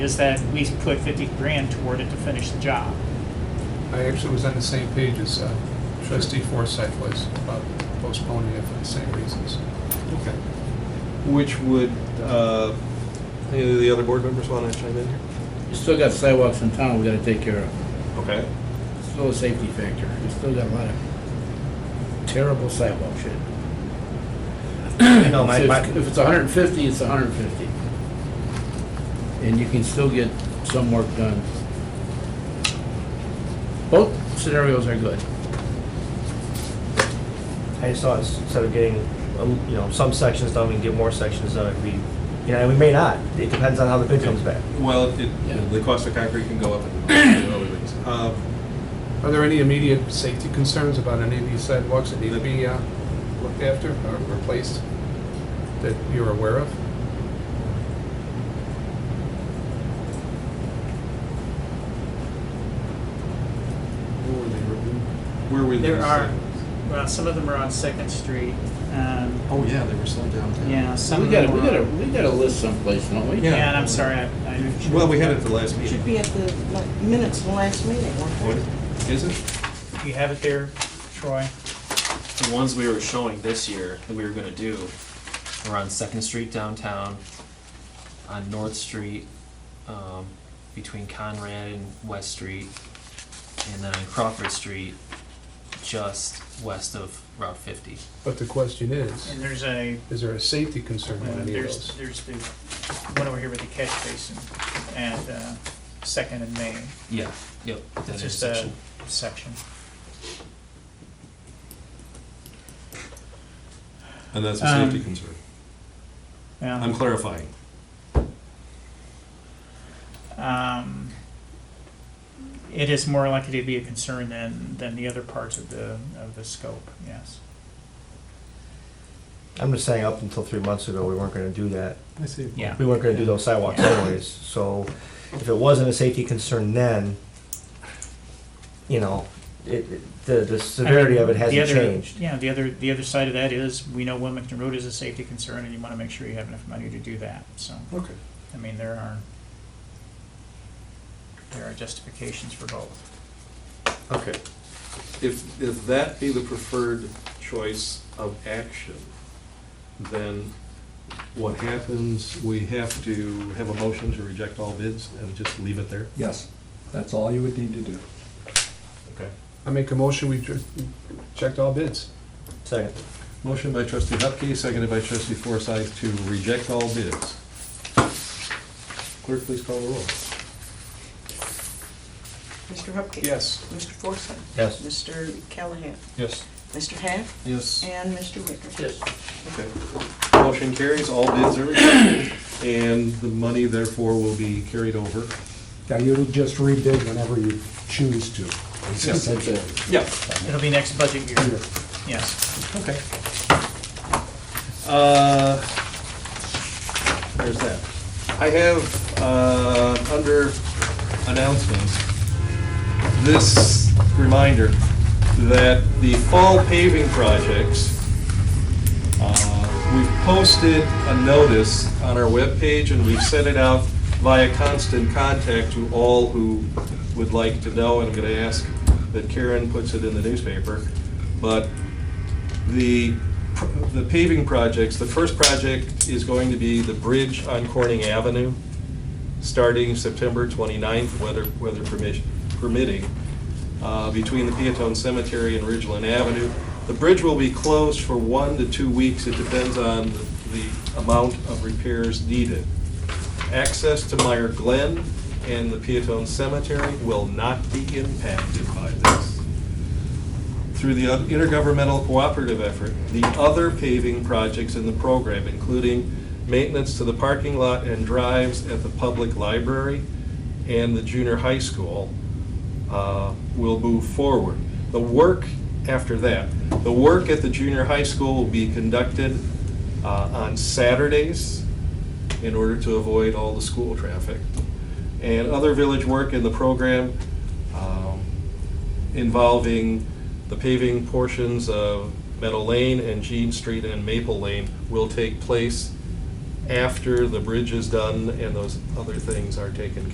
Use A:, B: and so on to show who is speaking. A: is that we put fifty grand toward it to finish the job.
B: I actually was on the same page as uh, trustee Forsythe was about postponing it for the same reasons.
C: Okay. Which would, uh, any of the other board members want to chime in here?
D: You still got sidewalks in town we gotta take care of.
C: Okay.
D: Still a safety factor. You still got a lot of terrible sidewalk shit.
E: No, my,
D: If-
E: my,
D: If it's hundred and fifty, it's hundred and fifty. And you can still get some work done. Both scenarios are good.
E: I just thought instead of getting, um, you know, some sections done, we can get more sections done if we, you know, we may not. It depends on how the bid comes back.
C: Well, it,
D: Yeah.
C: the cost of concrete can go up. and other things. Uh,
B: Are there any immediate safety concerns about any of these sidewalks that need to be uh, looked after or replaced that you're aware of?
C: Where were they written? Where were these?
A: There are, well, some of them are on Second Street, um,
C: Oh, yeah, they were slowed down.
A: yeah, some
D: We
A: of them
D: gotta,
A: are.
D: we gotta, we gotta list someplace, don't we?
C: Yeah.
A: Yeah, and I'm sorry, I, I.
C: Well, we had it at the last
F: Should
C: meeting.
F: be at the like, minutes of the last meeting.
C: What Is it?
A: You have it there, Troy?
G: the ones we were showing this year that we were gonna do were on Second Street downtown, on North Street, um, between Conrad and West Street, and then on Crawford Street, just west of Route fifty.
B: But the question is,
A: And there's a,
B: is there a safety concern
A: uh,
B: on any of
A: there's, there's
B: those?
A: the one over here with the catch basin at, uh, Second and Main,
G: Yeah. Yep. That
A: it's just a
G: intersection.
A: section.
C: And that's
A: a safety Um,
C: concern.
A: Yeah.
C: clarifying.
A: um, it is more likely to be a concern than, than the other parts of the, of the scope, yes.
E: I'm just saying, up until three months ago, we weren't gonna do that.
C: I see.
A: Yeah.
E: We weren't gonna do those sidewalks anyways, so if it wasn't a safety concern then, you know, it, it- the, the severity of it
A: I mean, the
E: hasn't
A: other-
E: changed.
A: Yeah, the other, the other side of that is, we know Wilmington Road is a safety concern, and you want to make sure you have enough money to do that, so,
C: Okay.
A: I mean, there are, there are justifications for both.
C: Okay. If, if that be the preferred choice of action, then what happens, we have to have a motion to reject all bids and just leave it there?
H: Yes, that's all you would need to do.
C: Okay.
B: I make a motion, we ju- checked all bids.
E: Second,
C: Motion by trustee Hupkey, seconded by trustee Forsythe to reject all bids. Clerk, please call the roll.
F: Mr. Hupkey.
B: Yes.
F: Mr. Forsyth.
E: yes.
F: Mr. Callahan.
C: Yes.
F: Mr. Half.
C: Yes.
F: And Mr. Wicker.
D: Yes.
C: Okay. Motion carries, all bids are rejected, and the money therefore will be carried over.
H: Now, you'll just rebid whenever you choose to. essentially.
C: Yeah.
A: It'll be next budget year, yes.
C: Okay. Uh, There's that. I have, uh, under announcements, this reminder that the fall paving projects, uh, we've posted a notice on our webpage, and we've sent it out via constant contact to all who would like to know, and I'm going to ask that Karen puts it in the newspaper. But the, the paving projects, the first project is going to be the bridge on Corning Avenue, starting September 29th, weather, weather permission- permitting, uh, between the Peatone Cemetery and Ridgeland Avenue. The bridge will be closed for one to two weeks, it depends on the- the amount of repairs needed. Access to Meyer Glen and the Peatone Cemetery will not be impacted by this through the intergovernmental cooperative effort, the other paving projects in the program, including maintenance to the parking lot and drives at the public library and the junior high school, uh, will move forward. The work after that, the work at the junior high school will be conducted uh, on Saturdays in order to avoid all the school traffic. And other village work in the program, um, involving the paving portions of Meadow Lane and Jean Street and Maple Lane will take place after the bridge is done and those other things are taken